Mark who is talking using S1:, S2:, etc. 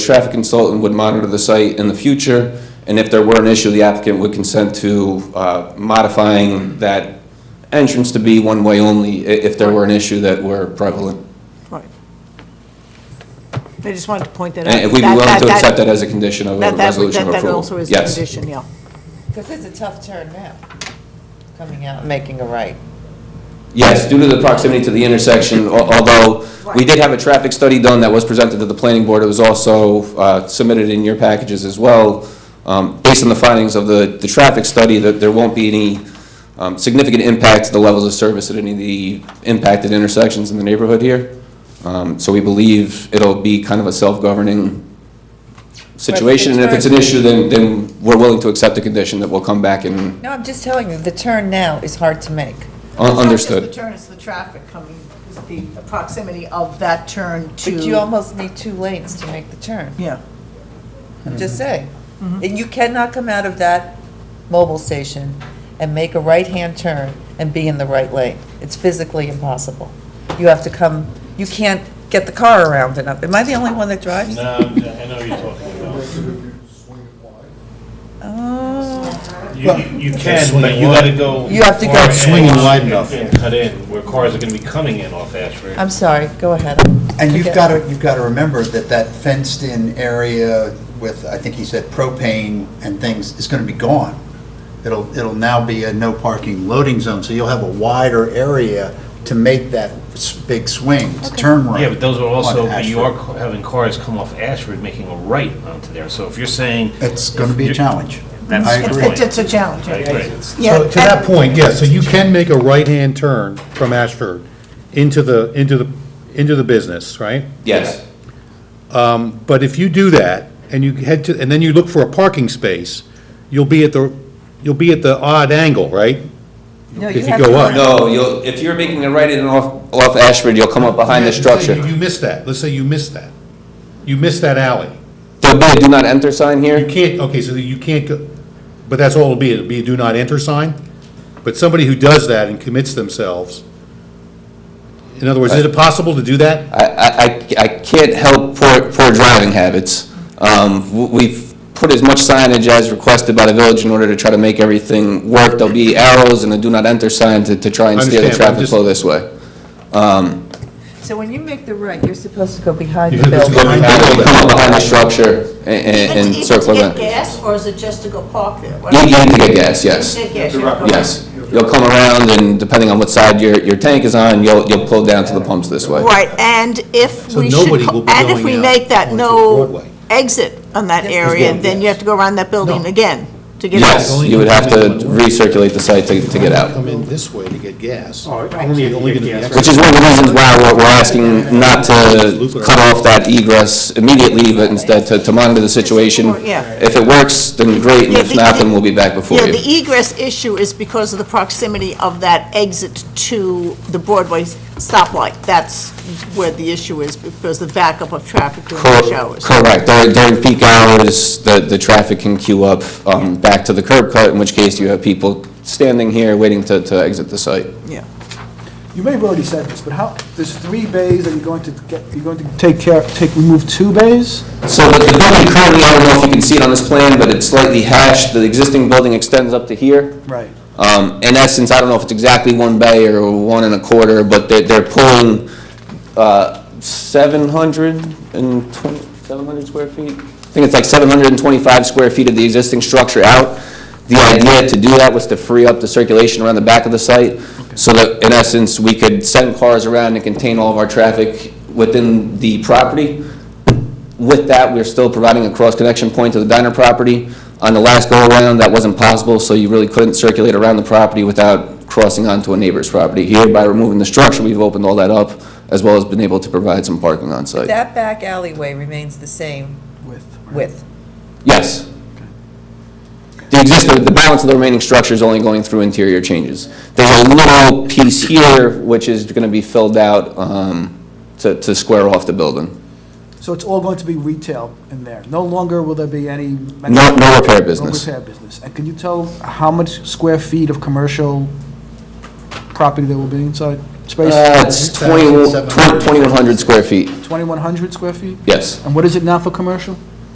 S1: Traffic consultant would monitor the site in the future, and if there were an issue, the applicant would consent to uh, modifying that entrance to be one-way only i- if there were an issue that were prevalent.
S2: Right. I just wanted to point that out.
S1: And we'd be willing to accept that as a condition of a
S2: That, that,
S1: resolution of
S2: that-
S1: approval.
S2: that also is a
S1: Yes.
S2: condition, yeah.
S3: Because it's a tough turn now, coming out and making a right.
S1: Yes, due to the proximity to the intersection, al- although we
S2: Right.
S1: did have a traffic study done that was presented to the planning board, it was also uh, submitted in your packages as well. Um, Based on the findings of the, the traffic study, that there won't be any um, significant impact to the levels of service at any of the impacted intersections in the neighborhood here. Um, So we believe it'll be kind of a self-governing situation, and if it's an issue, then, then we're willing to accept a condition that will come back and
S3: No, I'm just telling you, the turn now is hard to make.
S1: un- understood.
S2: It's not just the turn, it's the traffic coming, it's the proximity of that turn to.
S3: But you almost need two lanes to make the turn,
S2: Yeah,
S3: I'm just saying. And you cannot come out of that mobile station and make a right-hand turn and be in the right lane. It's physically impossible. You have to come, you can't get the car around enough. Am I the only one that drives?
S4: No, I'm- Um, I know what you're talking about.
S3: Oh,
S4: You- You can, but you gotta go.
S3: You have to go
S4: far in
S5: Swinging wide
S4: and-
S5: enough.
S4: And cut in, where cars are gonna be coming in off Ashford.
S3: I'm sorry, go ahead.
S5: And you've
S3: Forget-
S5: got to, you've got to remember that that fenced-in area with, I think he said propane and things, is going to be gone. It'll, it'll now be a no parking loading zone, so you'll have a wider area to make that s- big swing, to turn right.
S4: Yeah, but those are
S5: on
S4: also, but you are
S5: Ashford.
S4: ca- having cars come off Ashford, making a right onto there, so if you're saying.
S5: It's going to be a
S4: You're-
S5: challenge.
S4: That's
S5: I
S4: the
S5: agree.
S4: point.
S2: it's, it's a challenge.
S4: I
S2: yeah.
S4: agree.
S2: Yeah,
S6: So to that point, yes, so you can make a right-hand turn from Ashford into the, into the, into the business, right?
S1: Yes,
S6: But if you do that, and you head to, and then you look for a parking space, you'll be at the, you'll be at the odd angle, right?
S3: No,
S6: If you
S3: have
S6: go
S3: to-
S6: up.
S1: no, you'll, if you're making a right in off, off Ashford, you'll come up behind the
S6: Let's say
S1: structure.
S6: you- You missed that, let's say you missed that. You missed that alley.
S1: There'll be a do not enter sign
S6: You
S1: here?
S6: can't, okay, so you can't go, but that's all it'll be, it'll be a do not enter sign. But somebody who does that and commits themselves, in other words, is it possible to do that?
S1: I, I, I- I can't help poor, poor driving habits. Um, w- we've put as much signage as requested by the village in order to try to make everything work. There'll be arrows and a do not enter sign to, to try and steer the
S6: Understand, but I'm
S1: traffic
S6: just-
S1: flow this way.
S3: So when you make the right, you're supposed to go behind
S6: You
S3: the
S6: have to
S3: building.
S6: go behind the
S1: You'll
S6: building.
S1: Come up behind the structure and- and, and circle
S2: Is it
S1: around.
S2: to get gas, or is it just to go park there? What-
S1: You, you need to get gas, yes.
S2: Take gas, yeah.
S1: Yes. You'll come around and depending on what side your, your tank is on, you'll, you'll pull down to the pumps this way.
S2: Right, and if
S6: So
S2: we should,
S6: nobody
S2: co-
S6: will be
S2: and if
S6: going
S2: we
S6: out
S2: make that
S6: onto
S2: no
S6: Broadway.
S2: exit on that
S3: Yes,
S2: area,
S6: yes.
S2: then you have to go around that building
S6: No.
S2: again to get out.
S1: Yes, you would have to recirculate the site to, to get out.
S6: Come in this way to get gas. Only, only gonna be
S1: Which is one of the reasons why we're, we're asking not to cut off that egress immediately, but instead to, to monitor the situation.
S2: Yeah. e-
S1: If it works, then great, and if not, then we'll be back before
S2: Yeah,
S1: you.
S2: the e- egress issue is because of the proximity of that exit to the Broadway stoplight. That's where the issue is, because the backup of traffic during rush
S1: Cor-
S2: hours.
S1: Correct, during, during peak hours, the, the traffic can queue up, um, back to the curb cut, in which case you have people standing here waiting to, to exit the site.
S2: Yeah.
S7: You may have already said this, but how, there's three bays, are you going to get, you're going to take care, take, remove two bays?
S1: So the the building currently, I don't know if you can see it on this plan, but it's slightly hashed, the existing building extends up to here.
S7: Right.
S1: Um, in essence, I don't know if it's exactly one bay or one and a quarter, but they're, they're pulling, uh, 720 700 square feet? I think it's like seven hundred and twenty-five square feet of the existing structure out. The idea to do that was to free up the circulation around the back of the site, so that, in essence, we could send cars around and contain all of our traffic within the property. With that, we're still providing a cross-connection point to the diner property. On the last go-around, that wasn't possible, so you really couldn't circulate around the property without crossing onto a neighbor's property. Here, by removing the structure, we've opened all that up, as well as been able to provide some parking on site.
S3: That back alleyway remains the same
S7: With.
S3: width.
S1: Yes. The existing, the balance of the remaining structure is only going through interior changes. There's a little piece here, which is going to be filled out um, to to square off the building.
S7: So it's all going to be retail in there? No longer will there be any?
S1: No- no repair business.
S7: No repair business. And can you tell how much square feet of commercial property there will be inside? space?
S1: Uh, It's 20
S5: 2,700.
S1: 2,100 square feet,
S7: 2,100 square feet?
S1: yes.
S7: And what is it now for commercial?